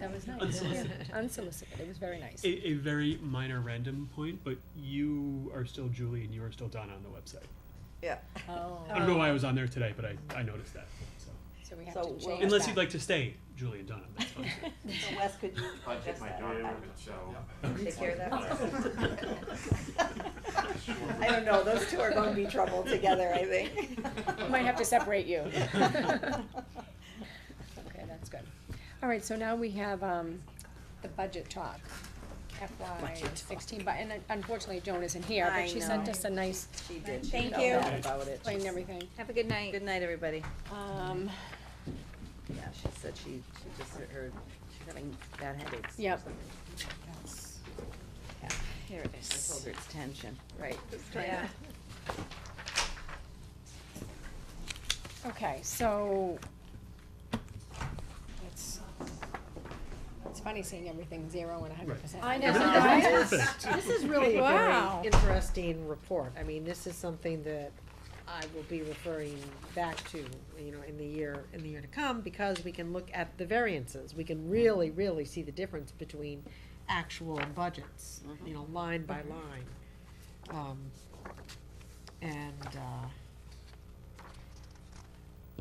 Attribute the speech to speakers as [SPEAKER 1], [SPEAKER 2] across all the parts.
[SPEAKER 1] That was nice, yeah,
[SPEAKER 2] Unsolicited.
[SPEAKER 1] unsolicited, it was very nice.
[SPEAKER 2] A, a very minor random point, but you are still Julie and you are still Donna on the website.
[SPEAKER 3] Yeah.
[SPEAKER 1] Oh,
[SPEAKER 2] I don't know why I was on there today, but I, I noticed that. So
[SPEAKER 1] so we have
[SPEAKER 3] So
[SPEAKER 1] to
[SPEAKER 3] we'll-
[SPEAKER 1] change that.
[SPEAKER 2] unless you'd like to stay, Julie and Donna, that's fine.
[SPEAKER 3] So Wes, could you
[SPEAKER 4] Budget
[SPEAKER 3] adjust
[SPEAKER 4] my
[SPEAKER 3] that?
[SPEAKER 4] daughter,
[SPEAKER 3] I-
[SPEAKER 4] so.
[SPEAKER 3] Take care of
[SPEAKER 4] Sure.
[SPEAKER 3] that. I don't know, those two are gonna be trouble together, I think.
[SPEAKER 1] Might have to separate you.
[SPEAKER 3] All
[SPEAKER 1] Okay, that's good. All right, so now we have, um, the budget talk, FY
[SPEAKER 3] Budget talk.
[SPEAKER 1] sixteen, but, and unfortunately Joan isn't here,
[SPEAKER 3] I
[SPEAKER 1] but she sent
[SPEAKER 3] know.
[SPEAKER 1] us a nice,
[SPEAKER 3] She did. She
[SPEAKER 5] Thank
[SPEAKER 3] felt
[SPEAKER 5] you.
[SPEAKER 3] bad About it.
[SPEAKER 1] explained everything.
[SPEAKER 5] Have a good night.
[SPEAKER 3] Good night, everybody.
[SPEAKER 1] Um,
[SPEAKER 3] Yeah, she said she, she just heard, she's having bad headaches. or
[SPEAKER 1] Yep.
[SPEAKER 3] something.
[SPEAKER 1] that's-
[SPEAKER 3] Here it is. I told her it's tension.
[SPEAKER 1] right.
[SPEAKER 5] Yeah.
[SPEAKER 1] Okay, so, it's, it's funny seeing everything zero and a hundred
[SPEAKER 2] Right.
[SPEAKER 1] percent.
[SPEAKER 6] I know.
[SPEAKER 2] Everything
[SPEAKER 6] right?
[SPEAKER 2] was perfect.
[SPEAKER 6] This is really a
[SPEAKER 5] Wow.
[SPEAKER 6] very interesting report. I mean, this is something that I will be referring back to, you know, in the year, in the year to come, because we can look at the variances. We can really, really see the difference between actual and budgets, you know, line by line. Um, and, uh,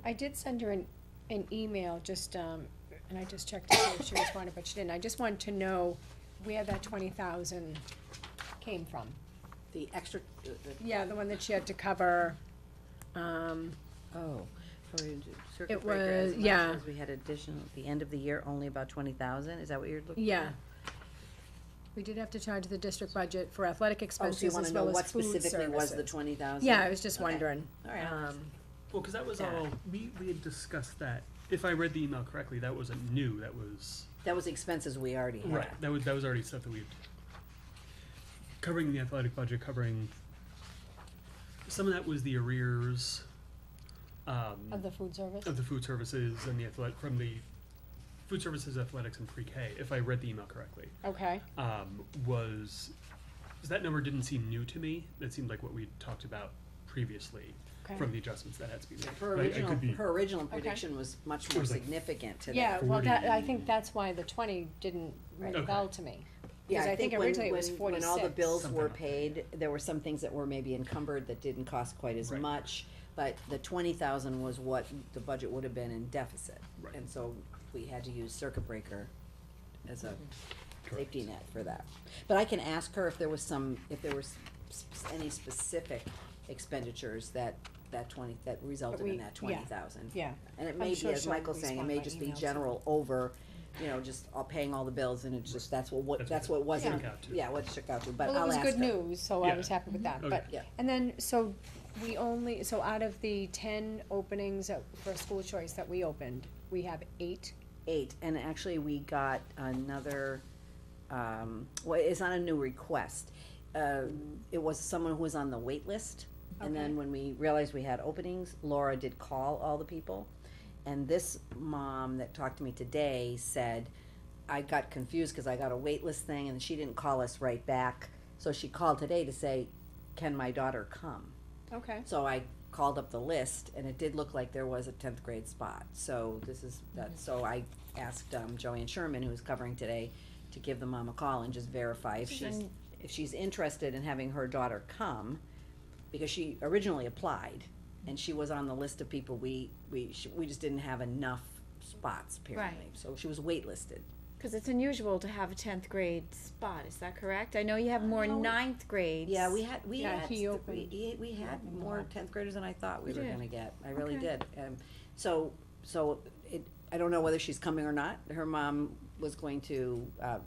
[SPEAKER 1] I did send her an, an email, just, um, and I just checked to see if she responded, but she didn't, I just wanted to know where that twenty thousand came from.
[SPEAKER 3] The extra, the, the.
[SPEAKER 1] Yeah, the one that she had to cover, um,
[SPEAKER 3] Oh. for you to-
[SPEAKER 1] It
[SPEAKER 3] Circuit breaker as
[SPEAKER 1] was-
[SPEAKER 3] much
[SPEAKER 1] yeah.
[SPEAKER 3] as we had additional, at the end of the year, only about twenty thousand, is that what you're looking?
[SPEAKER 1] yeah. Oh, We did have to charge the district budget for athletic
[SPEAKER 3] Oh,
[SPEAKER 1] expenses as well as food services.
[SPEAKER 3] twenty thousand?
[SPEAKER 1] Yeah, I was just
[SPEAKER 3] Okay.
[SPEAKER 1] wondering,
[SPEAKER 3] All right.
[SPEAKER 1] um,
[SPEAKER 2] Well, because that was
[SPEAKER 3] Yeah.
[SPEAKER 2] all, we, we had discussed that. If I read the email correctly, that wasn't new, that was,
[SPEAKER 3] That was expenses we already had.
[SPEAKER 2] right, that was, that was already stuff that we've, covering the athletic budget, covering, some of that was the arrears, um,
[SPEAKER 1] of the food service,
[SPEAKER 2] of the food services and the athletic, from the food services, athletics and pre-K, if I read the email correctly.
[SPEAKER 1] okay,
[SPEAKER 2] um, was, 'cause that number didn't seem new to me. That seemed like what we talked about previously
[SPEAKER 1] okay.
[SPEAKER 2] from the adjustments that had to be made.
[SPEAKER 3] Her
[SPEAKER 2] But I- I
[SPEAKER 3] original,
[SPEAKER 2] could be-
[SPEAKER 3] her original prediction was much more
[SPEAKER 2] was like-
[SPEAKER 3] significant to that.
[SPEAKER 1] Yeah, well, that, I
[SPEAKER 2] 40.
[SPEAKER 1] think that's why the twenty didn't ring a
[SPEAKER 2] Okay.
[SPEAKER 1] bell to me.
[SPEAKER 3] Yeah,
[SPEAKER 1] Because I think
[SPEAKER 3] when-
[SPEAKER 1] originally it was
[SPEAKER 3] when- When all the
[SPEAKER 1] 46.
[SPEAKER 3] bills were
[SPEAKER 2] Something
[SPEAKER 3] paid, there were some things that were maybe encumbered that didn't cost quite as
[SPEAKER 2] Right.
[SPEAKER 3] much, but the twenty thousand was what the budget would have been in deficit.
[SPEAKER 2] Right.
[SPEAKER 3] And so we had to use circuit breaker as a
[SPEAKER 2] Correct.
[SPEAKER 3] safety net for that. But I can ask her if there was some, if there was s- s- any specific expenditures that, that twenty, that resulted
[SPEAKER 1] we-
[SPEAKER 3] in that
[SPEAKER 1] yeah.
[SPEAKER 3] twenty thousand.
[SPEAKER 1] Yeah.
[SPEAKER 3] And it
[SPEAKER 1] I'm
[SPEAKER 3] may be,
[SPEAKER 1] sure
[SPEAKER 3] as
[SPEAKER 1] she'll
[SPEAKER 3] Michael's saying, it
[SPEAKER 1] respond
[SPEAKER 3] may
[SPEAKER 1] by
[SPEAKER 3] just be
[SPEAKER 1] email, too.
[SPEAKER 3] general over, you know, just all paying all the bills and it's just, that's what, what,
[SPEAKER 2] That's
[SPEAKER 3] that's
[SPEAKER 2] what
[SPEAKER 3] what wasn't,
[SPEAKER 2] shook out to.
[SPEAKER 3] yeah, what shook out to, but
[SPEAKER 1] Well, it
[SPEAKER 3] I'll
[SPEAKER 1] was
[SPEAKER 3] ask
[SPEAKER 1] good
[SPEAKER 3] her.
[SPEAKER 1] news, so I
[SPEAKER 2] Yeah.
[SPEAKER 1] was happy with that,
[SPEAKER 2] Okay.
[SPEAKER 1] but,
[SPEAKER 3] Yeah.
[SPEAKER 1] and then, so we only, so out of the ten openings that- for school choice that we opened, we have eight,
[SPEAKER 3] Eight, and actually we got another, um, well, it's not a new request. Uh, it was someone who was on the wait list, and
[SPEAKER 1] Okay.
[SPEAKER 3] then when we realized we had openings, Laura did call all the people. And this mom that talked to me today said, I got confused because I got a wait list thing and she didn't call us right back. So she called today to say, can my daughter come?
[SPEAKER 1] okay,
[SPEAKER 3] So I called up the list, and it did look like there was a tenth grade spot, so this is, that, so I asked, um, Joanne Sherman, who's covering today, to give the mom a call and just verify if she's, if she's interested in having her daughter come, because she originally applied, and she was on the list of people we, we, sh- we just didn't have enough spots apparently, so she was waitlisted.
[SPEAKER 5] Because it's unusual to have a tenth grade spot. Is that correct? I know you have more
[SPEAKER 3] Uh, No.
[SPEAKER 5] ninth grades.
[SPEAKER 3] Yeah, we had, we
[SPEAKER 1] Yeah,
[SPEAKER 3] had,
[SPEAKER 1] he
[SPEAKER 3] th-
[SPEAKER 1] opened-
[SPEAKER 3] we, we had more tenth graders than I thought we
[SPEAKER 5] You
[SPEAKER 3] were
[SPEAKER 5] did.
[SPEAKER 3] gonna get, I really
[SPEAKER 5] Okay.
[SPEAKER 3] did, um, so, so it, I don't know whether she's coming or not, her mom was going to, uh,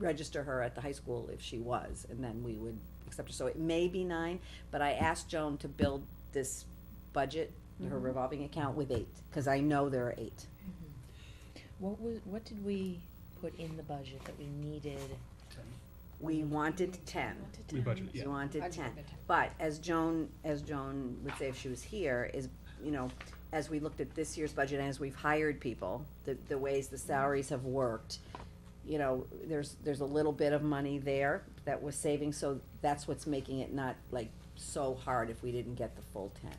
[SPEAKER 3] register her at the high school if she was, and then we would accept her, so it may be nine, but I asked Joan to build this budget, her revolving account with eight, cause I know there are eight.
[SPEAKER 7] What was, what did we put in the budget that we needed?
[SPEAKER 3] We wanted ten,
[SPEAKER 2] We budgeted,
[SPEAKER 3] we
[SPEAKER 2] yeah.
[SPEAKER 3] wanted
[SPEAKER 1] Budgeted
[SPEAKER 3] ten,
[SPEAKER 1] the 10.
[SPEAKER 3] But as Joan, as Joan would say if she was here, is, you know, as we looked at this year's budget and as we've hired people, the, the ways the salaries have worked, you know, there's, there's a little bit of money there that was saving, so that's what's making it not like so hard if we didn't get the full ten.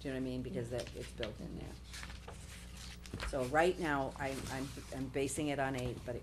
[SPEAKER 3] Do you know what I mean? Because that, it's built in there. So right now, I'm, I'm, I'm basing it on eight, but it